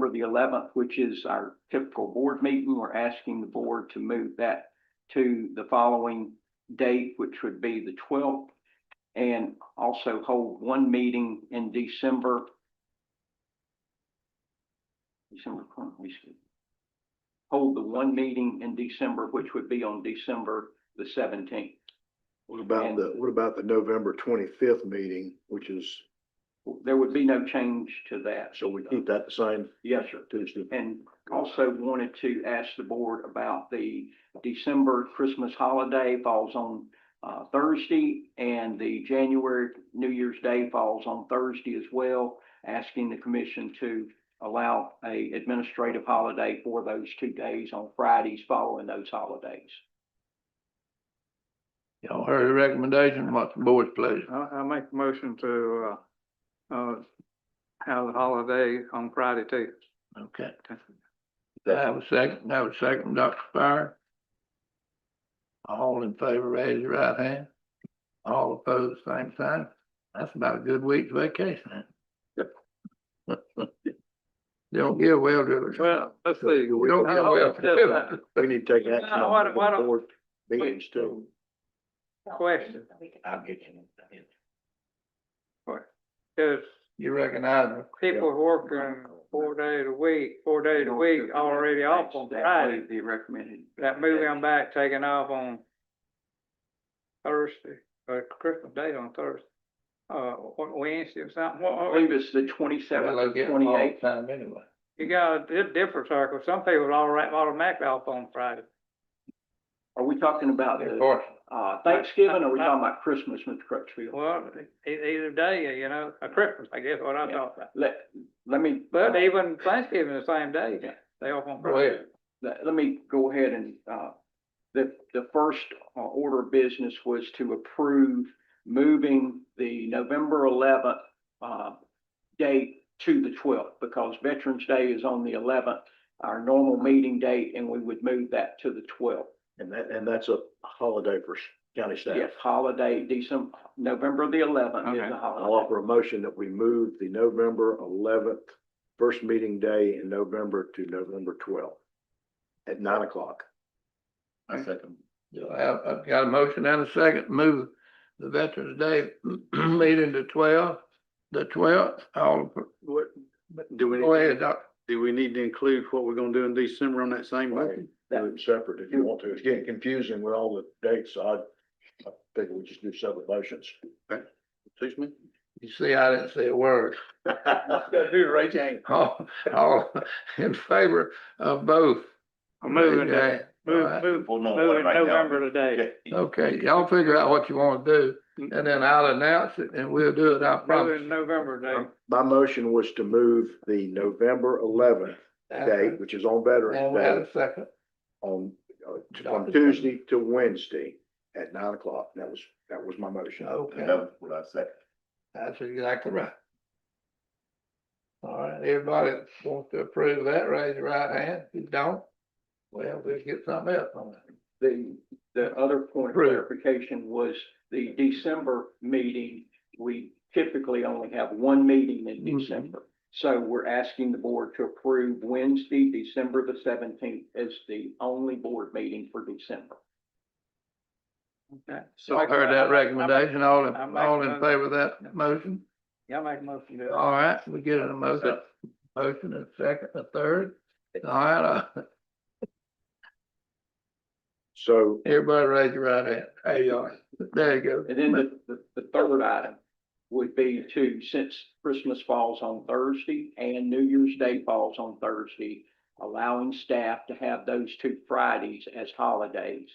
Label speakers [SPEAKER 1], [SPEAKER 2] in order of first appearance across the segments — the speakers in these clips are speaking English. [SPEAKER 1] for the eleventh, which is our typical board meeting. We're asking the board to move that to the following date, which would be the twelfth. And also hold one meeting in December. December, twenty- we should hold the one meeting in December, which would be on December the seventeenth.
[SPEAKER 2] What about the, what about the November twenty-fifth meeting, which is,
[SPEAKER 1] There would be no change to that.
[SPEAKER 2] so we keep that the same
[SPEAKER 1] Yes, sir.
[SPEAKER 2] Tuesday?
[SPEAKER 1] And also wanted to ask the board about the December Christmas holiday falls on uh, Thursday and the January New Year's Day falls on Thursday as well, asking the commission to allow a administrative holiday for those two days on Fridays following those holidays.
[SPEAKER 3] Y'all heard the recommendation, what's the board's pleasure?
[SPEAKER 4] I, I make a motion to, uh, uh, have a holiday on Friday too.
[SPEAKER 3] Okay, I have a second, I have a second, Dr. Spire. All in favor, raise your right hand. All opposed, same sign. That's about a good week's vacation. They Don't give well to it.
[SPEAKER 4] Well, let's see.
[SPEAKER 3] We don't give well to it.
[SPEAKER 2] We need to take action
[SPEAKER 4] No, Uh, why don't-
[SPEAKER 2] on
[SPEAKER 4] why
[SPEAKER 2] the
[SPEAKER 4] don't-
[SPEAKER 2] board meetings too.
[SPEAKER 4] Question.
[SPEAKER 3] I'll get you.
[SPEAKER 4] Cause
[SPEAKER 3] You recognize me?
[SPEAKER 4] people working four days a week, four days a week already off on
[SPEAKER 1] That
[SPEAKER 4] Friday.
[SPEAKER 1] way The recommended.
[SPEAKER 4] That moving them back, taking off on Thursday, or Christmas Day on Thursday, uh, or Wednesday or something. What-
[SPEAKER 1] I
[SPEAKER 4] what-
[SPEAKER 1] believe it's the
[SPEAKER 3] Well, I
[SPEAKER 1] twenty-seventh,
[SPEAKER 3] get them all the
[SPEAKER 1] twenty-eighth.
[SPEAKER 3] time anyway.
[SPEAKER 4] You got a di- different circle. Some people are all right, automatically off on Friday.
[SPEAKER 1] Are we talking about
[SPEAKER 3] They're
[SPEAKER 1] the
[SPEAKER 3] fortunate.
[SPEAKER 1] uh, Thanksgiving or are we talking about Christmas, Mr. Crutchfield?
[SPEAKER 4] Well, e- either day, you know, or Christmas, I guess what I'm
[SPEAKER 1] Yeah.
[SPEAKER 4] talking about.
[SPEAKER 1] Let, let me.
[SPEAKER 4] But even Thanksgiving the same day,
[SPEAKER 1] Yeah.
[SPEAKER 4] they off on
[SPEAKER 3] Go
[SPEAKER 4] Friday.
[SPEAKER 3] ahead.
[SPEAKER 1] let, let me go ahead and, uh, the, the first uh, order of business was to approve moving the November eleventh, uh, date to the twelfth, because Veterans Day is on the eleventh, our normal meeting date, and we would move that to the twelfth.
[SPEAKER 2] And that, and that's a holiday for county staff.
[SPEAKER 1] Yes, holiday, December, November the eleventh is
[SPEAKER 4] Okay.
[SPEAKER 1] the
[SPEAKER 2] I'll
[SPEAKER 1] holiday.
[SPEAKER 2] offer a motion that we move the November eleventh, first meeting day in November to November twelfth at nine o'clock.
[SPEAKER 3] I second. I have, I've got a motion and a second, move the Veterans Day meeting to twelve, the twelfth, all,
[SPEAKER 5] What, do we,
[SPEAKER 3] go
[SPEAKER 5] need-
[SPEAKER 3] ahead, Doc.
[SPEAKER 5] do we need to include what we're gonna do in December on that same motion?
[SPEAKER 2] Do it separate if you want to. It's getting confusing with all the dates. so I, I think we just do separate motions.
[SPEAKER 5] Excuse me?
[SPEAKER 3] You see, I didn't say a word.
[SPEAKER 2] Gotta do the right thing.
[SPEAKER 3] All, all in favor of both.
[SPEAKER 4] I'm
[SPEAKER 3] Raise
[SPEAKER 4] moving
[SPEAKER 3] your
[SPEAKER 4] it,
[SPEAKER 3] hand. All
[SPEAKER 4] move,
[SPEAKER 3] right.
[SPEAKER 4] move,
[SPEAKER 2] Well, no,
[SPEAKER 4] move it November today.
[SPEAKER 3] Okay, y'all figure out what you wanna do,
[SPEAKER 4] Mm.
[SPEAKER 3] and then I'll announce it, and we'll do it, I
[SPEAKER 4] Move it
[SPEAKER 3] promise.
[SPEAKER 4] November today.
[SPEAKER 2] My motion was to move the November eleventh date, which is on
[SPEAKER 3] And we had
[SPEAKER 2] Veterans Day,
[SPEAKER 3] a second.
[SPEAKER 2] on, uh, t- from Tuesday to Wednesday at nine o'clock. That was, that was my motion.
[SPEAKER 3] Okay.
[SPEAKER 2] That was what I said.
[SPEAKER 3] That's exactly right. All right, everybody that wants to approve that, raise your right hand. If you don't, well, we'll get something else on that.
[SPEAKER 1] The, the other point of
[SPEAKER 3] Right.
[SPEAKER 1] clarification was the December meeting. We typically only have one meeting in
[SPEAKER 3] Mhm.
[SPEAKER 1] December. So we're asking the board to approve Wednesday, December the seventeenth as the only board meeting for December.
[SPEAKER 4] Okay.
[SPEAKER 3] Y'all heard that recommendation, all in, all in favor of that motion?
[SPEAKER 4] Y'all make a motion to do it.
[SPEAKER 3] All right, we get a motion, motion and second, a third. All right, uh,
[SPEAKER 2] So
[SPEAKER 3] everybody raise your right hand. There you are. There you go.
[SPEAKER 1] And then the, the, the third item would be to, since Christmas falls on Thursday and New Year's Day falls on Thursday, allowing staff to have those two Fridays as holidays.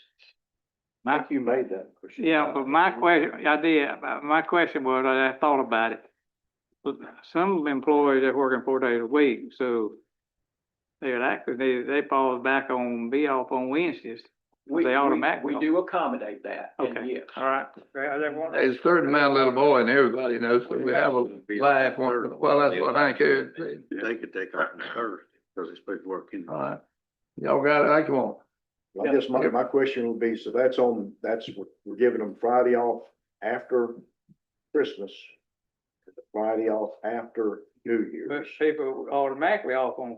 [SPEAKER 2] Mike, you made that. motion.
[SPEAKER 4] Yeah, but my question, I did, but my question was, I I thought about it. But Some employees are working four days a week, so they're actually, they, they fall back on, be off on Wednesdays.
[SPEAKER 1] We-
[SPEAKER 4] They
[SPEAKER 1] we-
[SPEAKER 4] automatically-
[SPEAKER 1] We do accommodate that, and
[SPEAKER 4] Okay.
[SPEAKER 1] yes.
[SPEAKER 4] All right. Well, they want-
[SPEAKER 3] There's a certain amount of little boy and everybody knows, so we have a laugh, on- well, that's what I care.
[SPEAKER 5] They could take off on Thursday, because it's supposed to work in.
[SPEAKER 3] All right, y'all got it, I come on.
[SPEAKER 2] I guess my, my question would be, so that's on, that's, what- we're giving them Friday off after Christmas. Friday off after New Year's.
[SPEAKER 4] But people automatically off on